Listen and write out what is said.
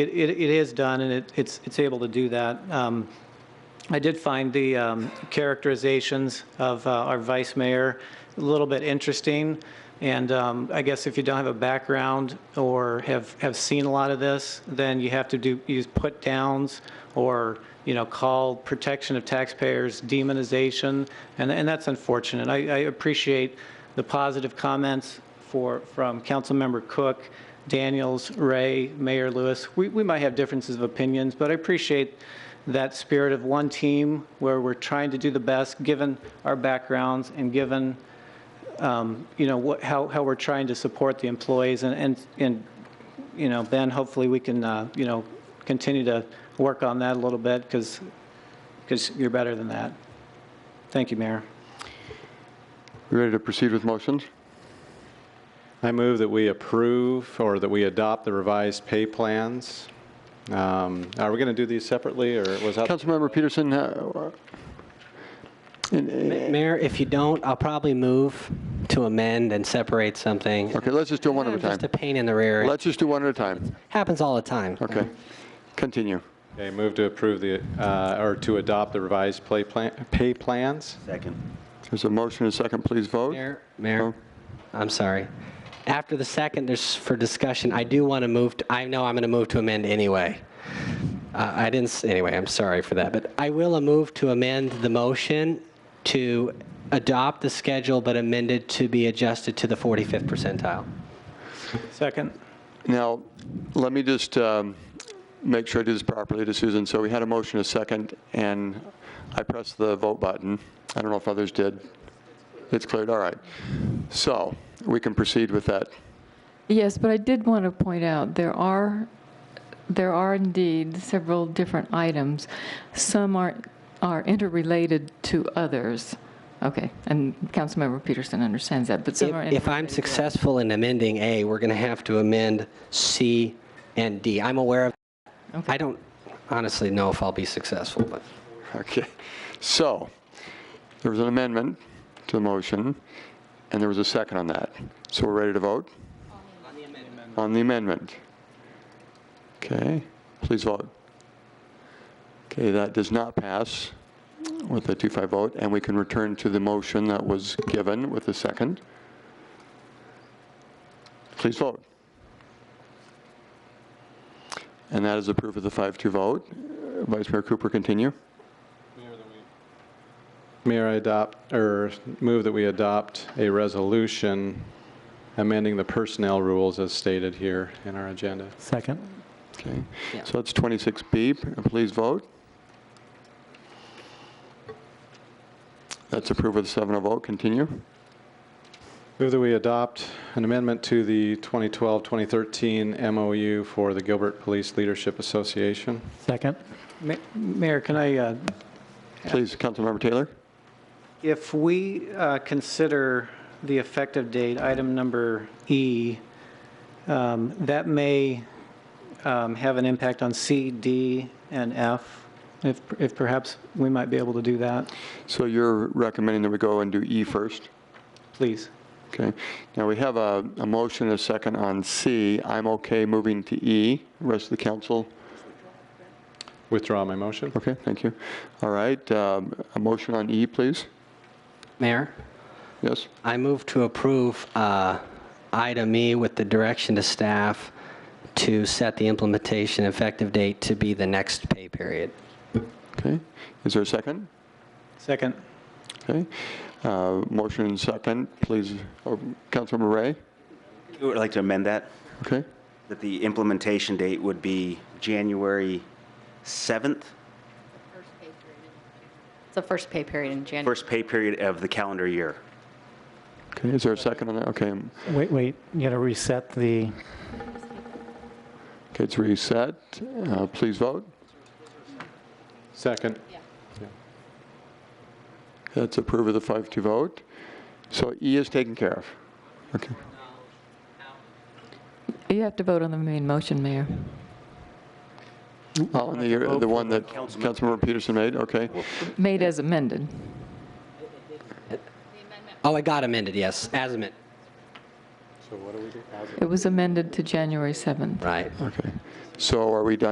It, it it is done, and it, it's, it's able to do that. Um, I did find the um, characterizations of uh, our vice mayor a little bit interesting, and um, I guess if you don't have a background or have, have seen a lot of this, then you have to do, use put-downs or, you know, call protection of taxpayers demonization, and, and that's unfortunate. I, I appreciate the positive comments for, from Councilmember Cook, Daniels, Ray, Mayor Lewis. We, we might have differences of opinions, but I appreciate that spirit of one team where we're trying to do the best, given our backgrounds and given, um, you know, what, how, how we're trying to support the employees. And, and, and, you know, Ben, hopefully we can, uh, you know, continue to work on that a little bit because, because you're better than that. Thank you, Mayor. You Ready to proceed with motions? I move that we approve or that we adopt the revised pay plans. Um, Are we going to do these separately or was that? Councilmember Peterson, uh, Mayor, if you don't, I'll probably move to amend and separate something. okay, let's just do one at a time. Just a pain in the rear. It Let's just do one at a time. happens all the time. Okay, continue. Okay, move to approve the, uh, or to adopt the revised play plan, pay plans? There's a motion and a second, please vote. Mayor, Oh. Mayor, I'm sorry. After the second, there's for discussion, I do want to move, to- I know I'm going to move to amend anyway. Uh, I didn't, s- anyway, I'm sorry for that, but I will move to amend the motion to adopt the schedule, but amended to be adjusted to the 45th percentile. Second? Now, let me just um, make sure I do this properly to Susan. So we had a motion and a second, and I pressed the vote button. I don't know if others did. It's cleared, all right. So we can proceed with that. Yes, but I did want to point out, there are, there are indeed several different items. Some are, are interrelated to others. Okay, and Councilmember Peterson understands that, but some are. If if I'm successful in amending A, we're going to have to amend C and D. I'm aware of, I don't honestly know if I'll be successful, but. Okay, so, there was an amendment to the motion, and there was a second on that. So we're ready to vote? On the amendment. Okay, please vote. Okay, that does not pass with a 2-5 vote, and we can return to the motion that was given with the second. Please vote. And that is approved with a 5-2 vote. Uh, Vice Mayor Cooper, continue. Mayor, I adopt, or move that we adopt a resolution amending the personnel rules as stated here in our agenda. Second. Okay, Yeah. so that's 26B. Please vote. That's approved with a seven of vote. Continue. Move that we adopt an amendment to the 2012-2013 MOU for the Gilbert Police Leadership Association. Second. Mayor, can I uh, Please, Councilmember Taylor. If we uh, consider the effective date, item number E, um, that may um, have an impact on C, D, and F, if if perhaps we might be able to do that, So you're recommending that we go and do E first? please. Okay. Now, we have a, a motion and a second on C. I'm okay moving to E. Rest of the council? Withdraw my motion. Okay, thank you. All right, um, a motion on E, please? Mayor, Yes? I move to approve uh, item E with the direction to staff to set the implementation effective date to be the next pay period. Okay. Is there a second? Second. Okay. Uh, Motion and second, please. Oh, Councilmember Ray? I would like to amend that, Okay. that the implementation date would be January 7th, It's the first pay period in January. first pay period of the calendar year. Okay, is there a second on that? Okay, um, Wait, wait, you gotta reset the, okay, it's reset. Uh, Please vote. Second. That's approved with a 5-2 vote. So E is taken care of. Okay, You have to vote on the main motion, Mayor. oh, and the, the one that Councilmember Peterson made, okay. Made as amended. Oh, I got amended, yes, as amended. It was amended to January 7th. Right. Okay. So are we done